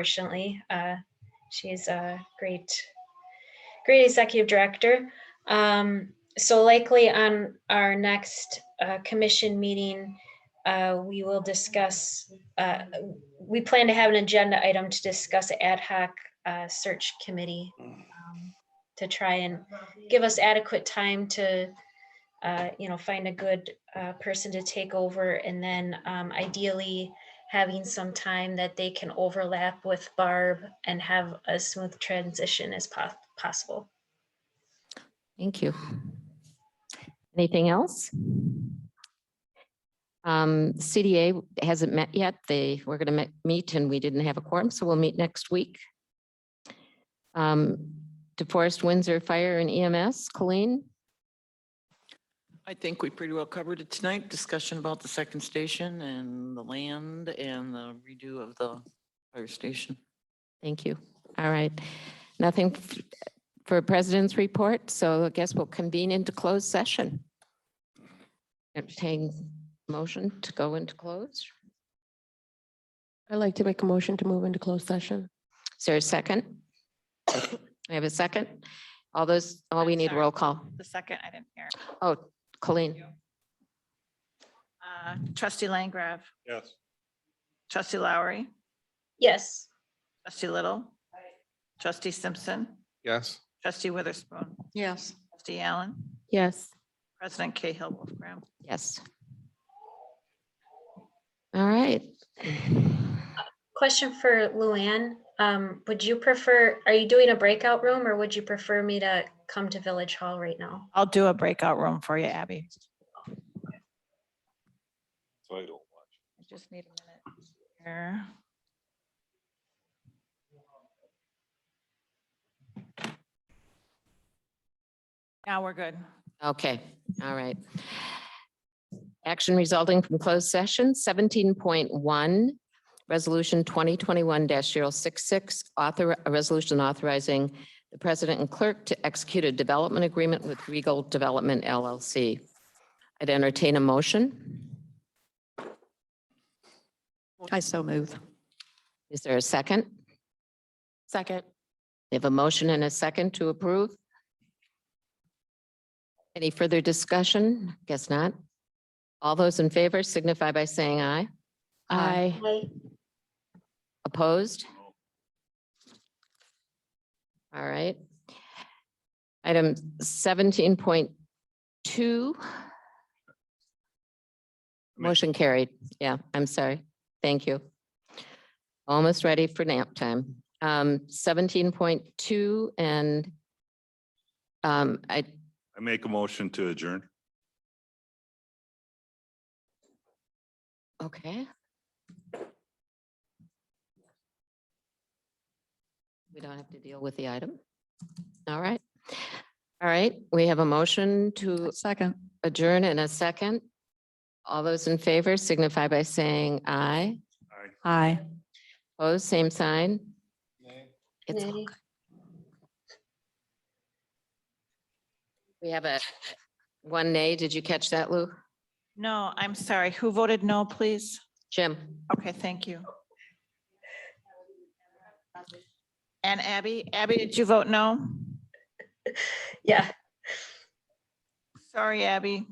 unfortunately. Uh, She's a great, great executive director. Um, So likely on our next uh, commission meeting, uh, we will discuss, uh, we plan to have an agenda item to discuss ad hoc uh, search committee um, to try and give us adequate time to, uh, you know, find a good uh, person to take over. And then um, ideally, having some time that they can overlap with Barb and have a smooth transition as pos- possible. Thank you. Anything else? Um, CDA hasn't met yet. They were going to meet and we didn't have a quorum, so we'll meet next week. Um, DeForest Windsor Fire and EMS, Colleen? I think we pretty well covered it tonight. Discussion about the second station and the land and the redo of the fire station. Thank you. All right. Nothing f- for president's report, so I guess we'll convene into closed session. Entertain motion to go into close. I'd like to make a motion to move into closed session. Is there a second? We have a second? All those, oh, we I'm need a sorry. roll call. The second, I didn't hear. Oh, Colleen, Uh, Trustee Langrav, Yes. trustee Lowry, Yes. trustee Little, trustee Simpson, Yes. trustee Witherspoon, Yes. trustee Allen, Yes. President Cahill Wolfgram. yes. All right. Question for Luann. Um, would you prefer, are you doing a breakout room or would you prefer me to come to Village Hall right now? I'll do a breakout room for you, Abby. So I don't watch. I just need a minute here. Now we're good. Okay, all right. Action resulting from closed session seventeen point one, resolution twenty twenty-one 66 author, a resolution authorizing the president and clerk to execute a development agreement with Regal Development LLC. I'd entertain a motion. I so move. Is there a second? Second. We have a motion and a second to approve. Any further discussion? Guess not. All those in favor signify by saying aye. Aye. Hi. Opposed? All right. Item seventeen point two. Motion carried. Yeah, I'm sorry. Thank you. Almost ready for nap time. Um, seventeen point two and um, I, I make a motion to adjourn. okay. We don't have to deal with the item. All right. All right, we have a motion to Second. adjourn in a second. All those in favor signify by saying aye. Aye. Aye. Opposed, same sign. It's, Nay. we have a one nay. Did you catch that, Lou? No, I'm sorry. Who voted no, please? Jim? Okay, thank you. And Abby, Abby, did you vote no? Yeah, Sorry, Abby.